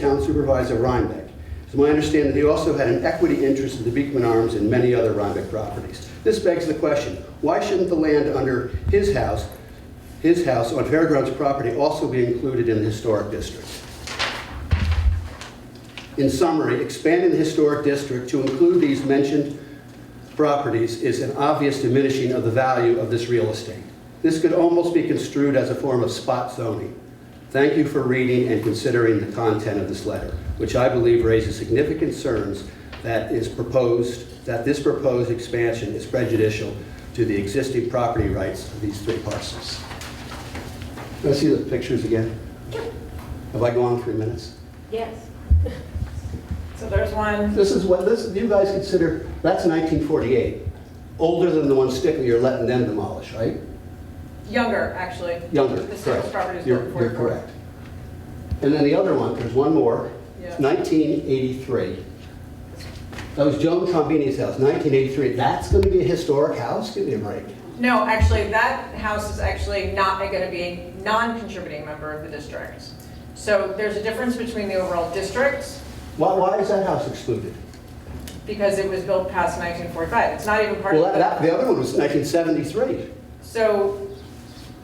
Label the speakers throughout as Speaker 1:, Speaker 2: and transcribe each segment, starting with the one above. Speaker 1: Town Supervisor Rhinebeck. It's my understanding that he also had an equity interest in the Beekman Arms and many other Rhinebeck properties. This begs the question, why shouldn't the land under his house, his house on Fairgrounds property also be included in the historic district? In summary, expanding the historic district to include these mentioned properties is an obvious diminishing of the value of this real estate. This could almost be construed as a form of spot zoning. Thank you for reading and considering the content of this letter, which I believe raises significant concerns that is proposed, that this proposed expansion is prejudicial to the existing property rights of these three parcels. Can I see the pictures again? Have I gone three minutes?
Speaker 2: Yes.
Speaker 3: So there's one,
Speaker 1: This is what, this, you guys consider, that's 1948, older than the one Stickler you're letting them demolish, right?
Speaker 3: younger, actually.
Speaker 1: Younger,
Speaker 3: The Stickles
Speaker 1: correct.
Speaker 3: property is
Speaker 1: You're,
Speaker 3: built before.
Speaker 1: you're correct. And then the other one, there's one more,
Speaker 3: Yeah.
Speaker 1: 1983. That was Joan Trombini's house, 1983. That's going to be a historic house? Give me a break.
Speaker 3: No, actually, that house is actually not going to be a non-contributing member of the district. So there's a difference between the overall district,
Speaker 1: Why, why is that house excluded?
Speaker 3: because it was built past 1945. It's not even part
Speaker 1: Well,
Speaker 3: of
Speaker 1: that, that-
Speaker 3: the...
Speaker 1: the other one was 1973.
Speaker 3: So,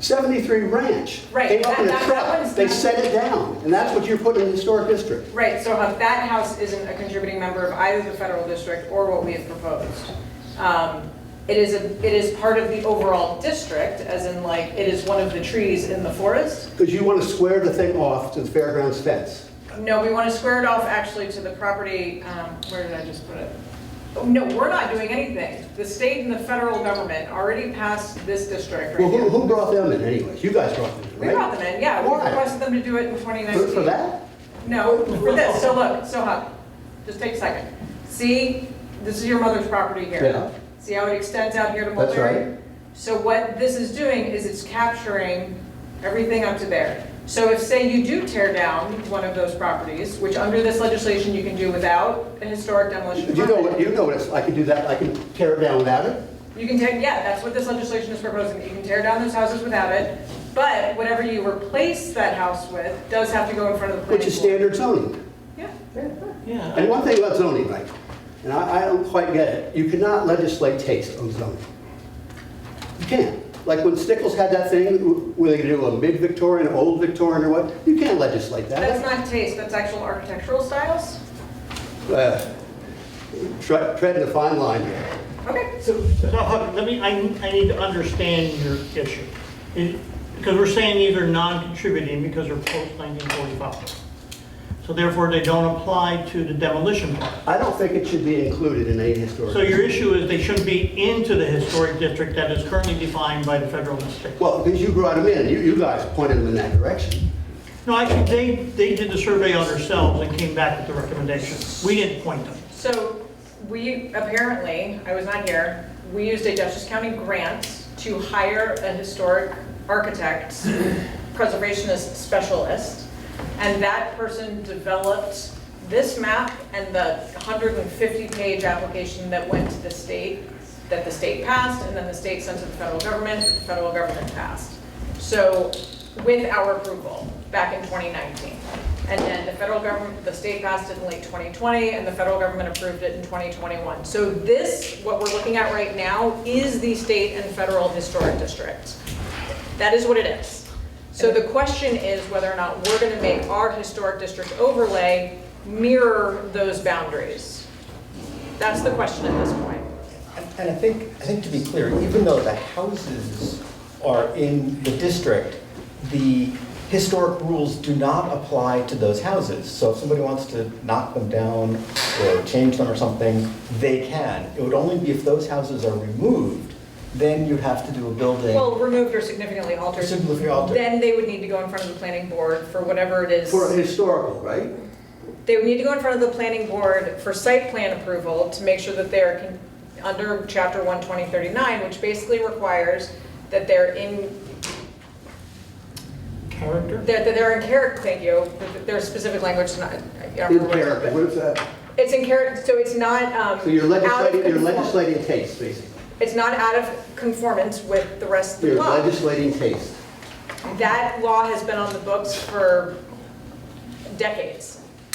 Speaker 1: 73 Ranch.
Speaker 3: Right,
Speaker 1: Came up
Speaker 3: that-
Speaker 1: in a
Speaker 3: that- that
Speaker 1: truck,
Speaker 3: one's
Speaker 1: they
Speaker 3: not-
Speaker 1: set it down, and that's what you're putting in the historic district.
Speaker 3: right, so how that house isn't a contributing member of either the federal district or what we have proposed. Um, It is, a it is part of the overall district, as in like, it is one of the trees in the forest.
Speaker 1: Because you want to square the thing off to the fairgrounds fence.
Speaker 3: No, we want to square it off actually to the property, um, where did I just put it? Oh, No, we're not doing anything. The state and the federal government already passed this district
Speaker 1: Well,
Speaker 3: right
Speaker 1: who,
Speaker 3: now.
Speaker 1: who brought them in anyways? You guys brought them in,
Speaker 3: We
Speaker 1: right?
Speaker 3: brought them in, yeah, we
Speaker 1: Why?
Speaker 3: requested them to do it in
Speaker 1: For,
Speaker 3: 2019.
Speaker 1: for that?
Speaker 3: No, for this, so look, so Huck, just take a second. See, this is your mother's property here.
Speaker 1: Yeah.
Speaker 3: See how it extends out here to
Speaker 1: That's
Speaker 3: Mulberry?
Speaker 1: right.
Speaker 3: So what this is doing is it's capturing everything up to there. So if, say, you do tear down one of those properties, which under this legislation you can do without a historic demolition
Speaker 1: You know, what-
Speaker 3: permit.
Speaker 1: you know what, it's- I can do that, I can tear it down without it?
Speaker 3: You can take, yeah, that's what this legislation is proposing, that you can tear down those houses without it. But whatever you replace that house with does have to go in front of the planning
Speaker 1: Which is
Speaker 3: board.
Speaker 1: standard zoning.
Speaker 3: Yeah.
Speaker 1: And one thing about zoning, right, and I, I don't quite get it, you cannot legislate taste on zoning. You can't. Like when Stickles had that thing, w- were they gonna do a mid-Victorian, old Victorian, or what? You can't legislate that.
Speaker 3: That's not taste, that's actual architectural styles.
Speaker 1: Uh, tre- Treading a fine line here.
Speaker 3: Okay.
Speaker 4: So, so, Huck, let me, I, I need to understand your issue. It- Because we're saying these are non-contributing because they're post nineteen forty-five. So therefore, they don't apply to the demolition part.
Speaker 1: I don't think it should be included in any historic.
Speaker 4: So your issue is they shouldn't be into the historic district that is currently defined by the federal and state.
Speaker 1: Well, because you brought them in, and you, you guys pointed them in that direction.
Speaker 4: No, actually, they, they did the survey on themselves and came back with the recommendation. We didn't point them.
Speaker 3: So we, apparently, I was not here, we used a Dutchess County grant to hire a historic architect, preservationist specialist, and that person developed this map and the 150-page application that went to the state, that the state passed, and then the state sent to the federal government, that the federal government passed. So with our approval, back in 2019. And then the federal government, the state passed it in late 2020, and the federal government approved it in 2021. So this, what we're looking at right now, is the state and federal historic district. That is what it is. So the question is whether or not we're going to make our historic district overlay mirror those boundaries. That's the question at this point.
Speaker 5: And- And I think, I think to be clear, even though the houses are in the district, the historic rules do not apply to those houses. So if somebody wants to knock them down or change them or something, they can. It would only be if those houses are removed, then you'd have to do a building.
Speaker 3: Well, removed or significantly altered.
Speaker 5: Significantly altered.
Speaker 3: Then they would need to go in front of the planning board for whatever it is.
Speaker 1: For historical, right?
Speaker 3: They would need to go in front of the planning board for site plan approval to make sure that they're con- under chapter one twenty thirty-nine, which basically requires that they're in,
Speaker 4: Character?
Speaker 3: that that they're in character, thank you, that their specific language is not. I don't
Speaker 1: In
Speaker 3: remember what it's-
Speaker 1: character, what is that?
Speaker 3: It's in character, so it's not, um.
Speaker 1: So you're
Speaker 3: out of
Speaker 1: legislating, you're
Speaker 3: conform-
Speaker 1: legislating taste, basically.
Speaker 3: It's not out of conformance with the rest of the
Speaker 1: You're
Speaker 3: law.
Speaker 1: legislating taste.
Speaker 3: That law has been on the books for decades.